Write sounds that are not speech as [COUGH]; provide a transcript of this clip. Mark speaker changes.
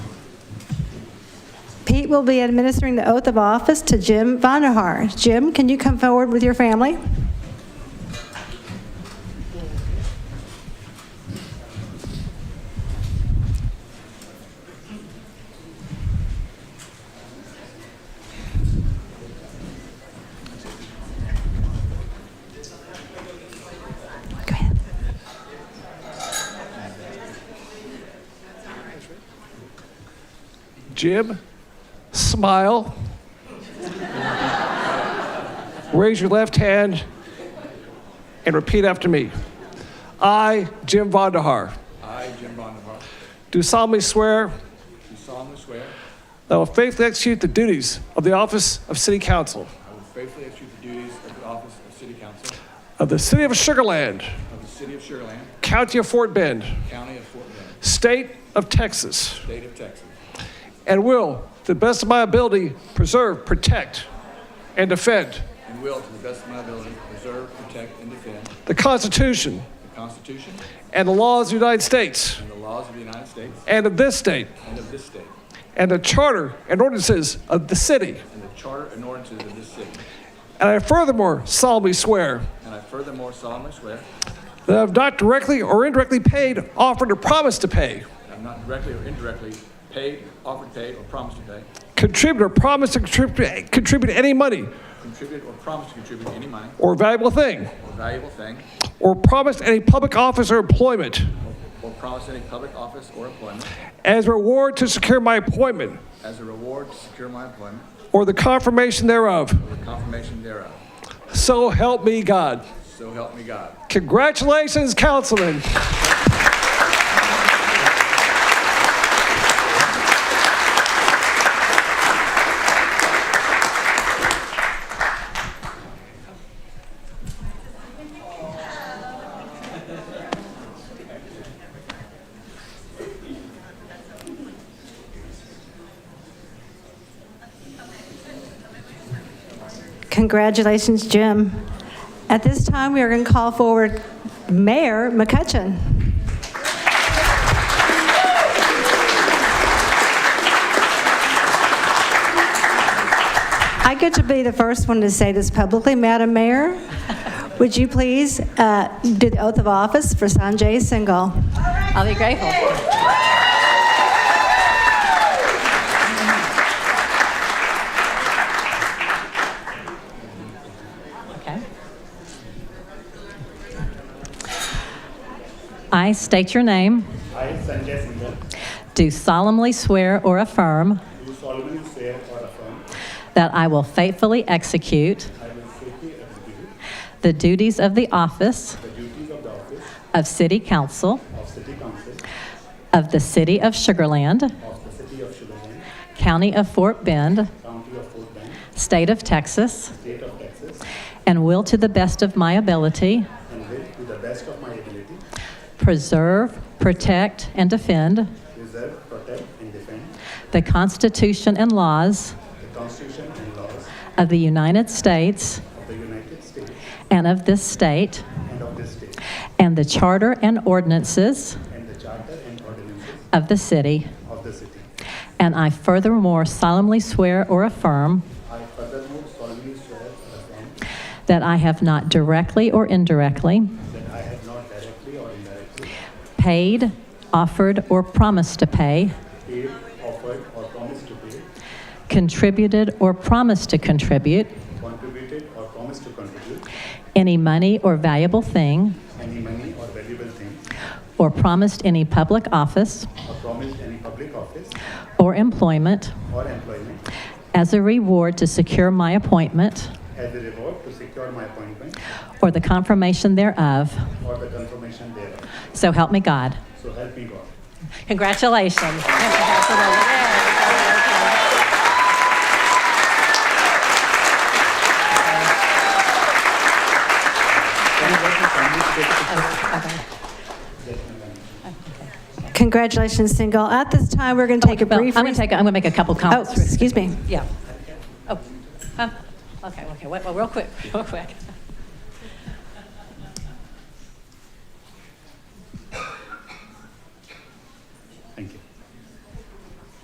Speaker 1: Pete will be administering the oath of office to Jim Vanderhaar. Jim, can you come forward with your family? Go ahead.
Speaker 2: Jim, smile. Raise your left hand and repeat after me. I, Jim Vondahar,
Speaker 3: I, Jim Bondevar,
Speaker 2: do solemnly swear
Speaker 3: do solemnly swear
Speaker 2: that I will faithfully execute the duties of the office of City Council
Speaker 3: I will faithfully execute the duties of the office of City Council
Speaker 2: of the City of Sugarland,
Speaker 3: of the City of Sugar Land,
Speaker 2: County of Fort Bend,
Speaker 3: County of Fort Bend,
Speaker 2: State of Texas,
Speaker 3: State of Texas,
Speaker 2: and will, to the best of my ability, preserve, protect, and defend
Speaker 3: and will, to the best of my ability, preserve, protect, and defend
Speaker 2: the Constitution
Speaker 3: the Constitution
Speaker 2: and the laws of the United States
Speaker 3: and the laws of the United States
Speaker 2: and of this state.
Speaker 3: and of this state,
Speaker 2: and the charter and ordinances of the city.
Speaker 3: and the charter and ordinances of this city.
Speaker 2: And I furthermore solemnly swear
Speaker 3: And I furthermore solemnly swear
Speaker 2: that I have not directly or indirectly paid, offered, or promised to pay,
Speaker 3: that I'm not directly or indirectly paid, offered paid, or promised to pay,
Speaker 2: contributed, or promised to contribute, contribute any money
Speaker 3: contributed, or promised to contribute any money
Speaker 2: or valuable thing,
Speaker 3: or valuable thing,
Speaker 2: or promised any public office or employment
Speaker 3: or promised any public office or employment
Speaker 2: as reward to secure my appointment
Speaker 3: as a reward to secure my employment
Speaker 2: or the confirmation thereof.
Speaker 3: or confirmation thereof.
Speaker 2: So help me God.
Speaker 3: So help me God.
Speaker 2: Congratulations, Councilman.
Speaker 1: Congratulations, Jim. At this time, we are going to call forward Mayor McCutcheon. I get to be the first one to say this publicly. Madam Mayor, would you please uh, do the oath of office for Sanjay Singhal?
Speaker 4: I'll be grateful. Okay. I state your name,
Speaker 5: I, Sanjay Singhal,
Speaker 4: do solemnly swear or affirm
Speaker 5: do solemnly swear or affirm
Speaker 4: that I will faithfully execute
Speaker 5: I will faithfully execute
Speaker 4: the duties of the office
Speaker 5: the duties of the office
Speaker 4: of City Council
Speaker 5: of City Council
Speaker 4: of the City of Sugarland,
Speaker 5: of the City of Sugarland,
Speaker 4: County of Fort Bend,
Speaker 5: County of Fort Bend,
Speaker 4: State of Texas,
Speaker 5: State of Texas,
Speaker 4: and will to the best of my ability
Speaker 5: and will, to the best of my ability,
Speaker 4: preserve, protect, and defend
Speaker 5: preserve, protect, and defend
Speaker 4: the Constitution and laws
Speaker 5: the Constitution and laws
Speaker 4: of the United States
Speaker 5: of the United States
Speaker 4: and of this state,
Speaker 5: and of this state,
Speaker 4: and the charter and ordinances
Speaker 5: and the charter and ordinances
Speaker 4: of the city.
Speaker 5: of the city.
Speaker 4: And I furthermore solemnly swear or affirm
Speaker 5: I furthermore solemnly swear or affirm
Speaker 4: that I have not directly or indirectly
Speaker 5: that I have not directly or indirectly
Speaker 4: paid, offered, or promised to pay,
Speaker 5: paid, offered, or promised to pay,
Speaker 4: contributed, or promised to contribute
Speaker 5: contributed, or promised to contribute
Speaker 4: any money or valuable thing,
Speaker 5: any money or valuable thing
Speaker 4: or promised any public office
Speaker 5: or promised any public office
Speaker 4: or employment
Speaker 5: or employment
Speaker 4: as a reward to secure my appointment
Speaker 5: as a reward to secure my appointment
Speaker 4: or the confirmation thereof.
Speaker 5: or the confirmation thereof.
Speaker 4: So help me God.
Speaker 5: So help me God.
Speaker 4: Congratulations.
Speaker 5: Can I get the family to take a picture?
Speaker 1: Congratulations, Singhal. At this time, we're going to take a
Speaker 4: Well, I'm
Speaker 1: brief...
Speaker 4: going to take, a- I'm going to make a couple
Speaker 1: Oh,
Speaker 4: comments.
Speaker 1: excuse me.
Speaker 4: Yeah. Oh, huh? okay, okay, wait, well, real quick, [LAUGHS] real quick.